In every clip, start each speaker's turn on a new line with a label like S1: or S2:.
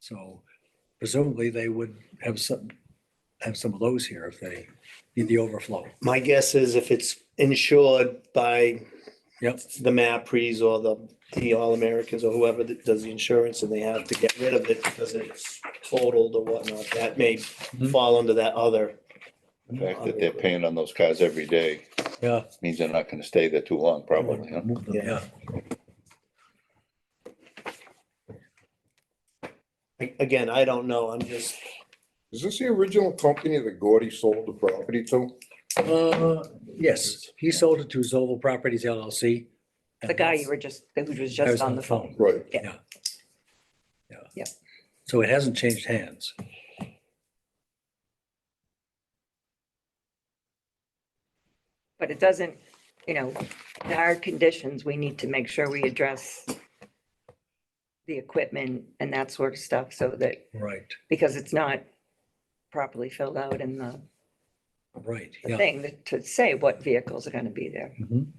S1: So presumably they would have some, have some of those here if they need the overflow.
S2: My guess is if it's insured by
S1: Yep.
S2: the MAPREs or the, the All-Americans or whoever that does the insurance and they have to get rid of it because it's totaled or whatnot, that may fall under that other.
S3: The fact that they're paying on those cars every day
S1: Yeah.
S3: means they're not gonna stay there too long, probably, huh?
S1: Move them, Yeah.
S2: A- Again, I don't know, I'm just,
S4: Is this the original company that Gordy sold the property to?
S1: Uh, yes, he sold it to Zoval Properties LLC. and
S5: The guy you
S1: that's-
S5: were just, who was
S1: I was
S5: just on the phone.
S4: Right.
S1: Yeah.
S5: Yep.
S1: So it hasn't changed hands.
S5: But it doesn't, you know, the hard conditions, we need to make sure we address the equipment and that sort of stuff so that,
S1: Right,
S5: because it's not properly filled out in the
S1: right,
S5: the
S1: yeah.
S5: thing that- to say what vehicles are going to be there.
S1: Mhm,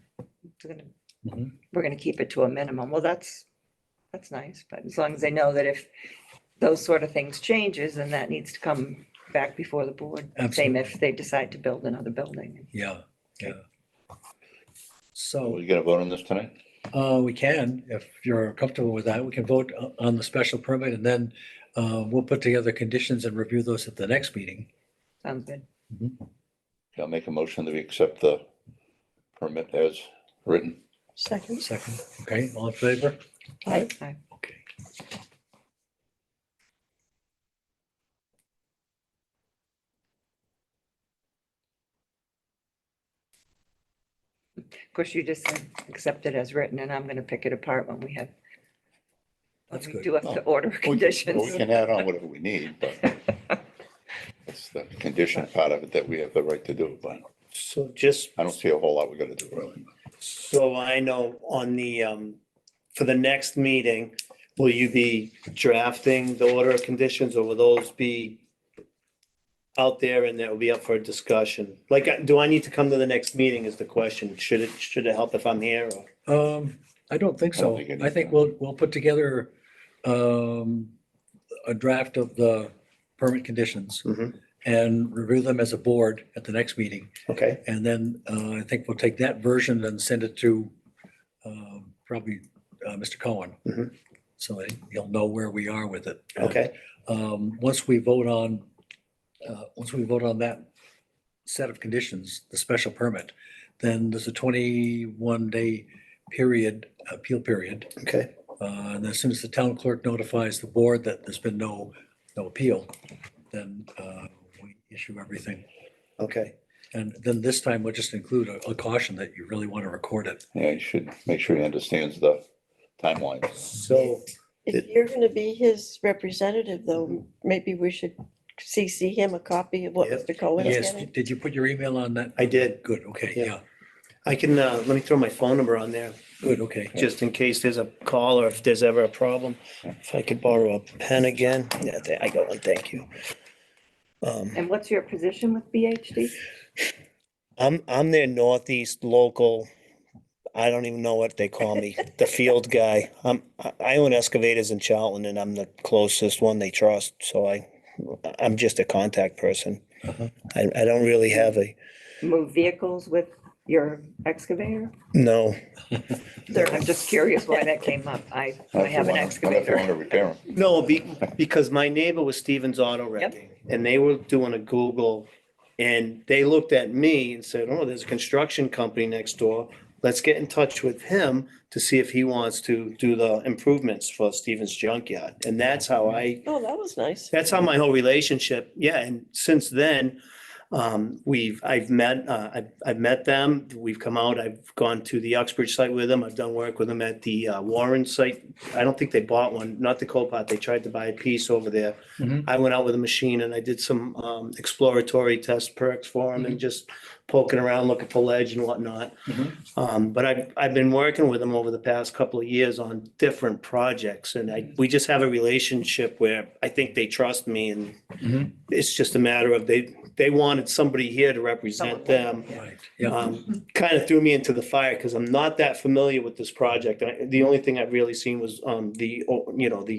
S5: It's gonna-
S1: mhm.
S5: We're going to keep it to a minimum. Well, that's, that's nice, but as long as they know that if those sort of things changes, then that needs to come back before the board. Same if they decide to build another building.
S1: Yeah, yeah.
S3: Are
S1: So
S3: you gonna vote on this tonight?
S1: uh, we can, if you're comfortable with that, we can vote o- on the special permit and then uh, we'll put together conditions and review those at the next meeting.
S5: Sounds good.
S3: I'll make a motion that we accept the permit as written.
S6: Second.
S1: Second, okay, all in favor?
S6: Aye.
S5: Aye.
S1: Okay.
S5: Of course, you just said accept it as written, and I'm going to pick it apart when we have. when
S1: That's
S5: we
S1: good.
S5: Do have to order
S3: We can- We
S5: conditions.
S3: can add on whatever we need, but it's the condition part of it that we have the right to do, but
S2: so just
S3: I don't see a whole lot we gotta do, really.
S2: So I know on the, um, for the next meeting, will you be drafting the order of conditions or will those be out there and that will be up for discussion? Like, uh, do I need to come to the next meeting is the question. Should it, should it help if I'm here or?
S1: Um, I don't think
S3: I don't
S1: so.
S3: think it
S1: I
S3: is,
S1: think
S3: no.
S1: we'll, we'll put together um, a draft of the permit conditions
S3: Mm-hmm.
S2: Mhm.
S1: and review them as a board at the next meeting.
S2: Okay,
S1: And then uh, I think we'll take that version and send it to um, probably uh, Mr. Cohen.
S2: Mhm.
S1: So that he'll know where we are with it.
S2: okay.
S1: Um, Once we vote on, uh, once we vote on that set of conditions, the special permit, then there's a 21-day period, appeal period.
S2: Okay.
S1: Uh, And as soon as the town clerk notifies the board that there's been no, no appeal, then uh, we issue everything.
S2: Okay.
S1: And then this time we'll just include a a caution that you really want to record it.
S3: Yeah, you should make sure he understands the timeline.
S2: So,
S6: If you're going to be his representative, though, maybe we should CC him a copy of what
S2: Yep.
S6: Mr. Cohen's
S1: Yes,
S6: getting.
S1: did you put your email on that?
S2: I did.
S1: Good, okay,
S2: Yeah.
S1: yeah,
S2: I can, uh, let me throw my phone number on there
S1: good, okay.
S2: just in case there's a call or if there's ever a problem. If I could borrow a pen again. Yeah, there I got one. Thank you. Um,
S5: And what's your position with BHD?
S2: I'm I'm their northeast local. I don't even know what they call me, the field guy. I'm I- I own excavators in Charlton, and I'm the closest one they trust. So I I'm just a contact person.
S1: Uh-huh.
S2: I I don't really have a
S5: Move vehicles with your excavator?
S2: no.
S5: I'm just curious why that came up. I, I have an
S3: I want to
S5: excavator.
S3: repair them.
S2: No, be, because my neighbor was Stevens Auto Wrecking, and they were doing a Google, and they looked at me and said, oh, there's a construction company next door. Let's get in touch with him to see if he wants to do the improvements for Stevens Junkyard. And that's how I,
S6: Oh, that was nice.
S2: that's how my whole relationship, yeah, and since then, um, we've, I've met, uh, I've, I've met them, we've come out, I've gone to the Uxbridge site with them, I've done work with them at the uh, Warren site. I don't think they bought one, not the Copart, they tried to buy a piece over there.
S1: Mhm.
S2: I went out with a machine and I did some, um, exploratory test perks for them and just poking around, looking for ledge and whatnot.
S1: Mhm.
S2: Um, but I've, I've been working with them over the past couple of years on different projects and I, we just have a relationship where I think they trust me and
S1: Mhm.
S2: it's just a matter of they, they wanted somebody here to represent them.
S1: Right, yeah,
S2: Um, kind of threw me into the fire because I'm not that familiar with this project. I- The only thing I've really seen was, um, the, oh, you know, the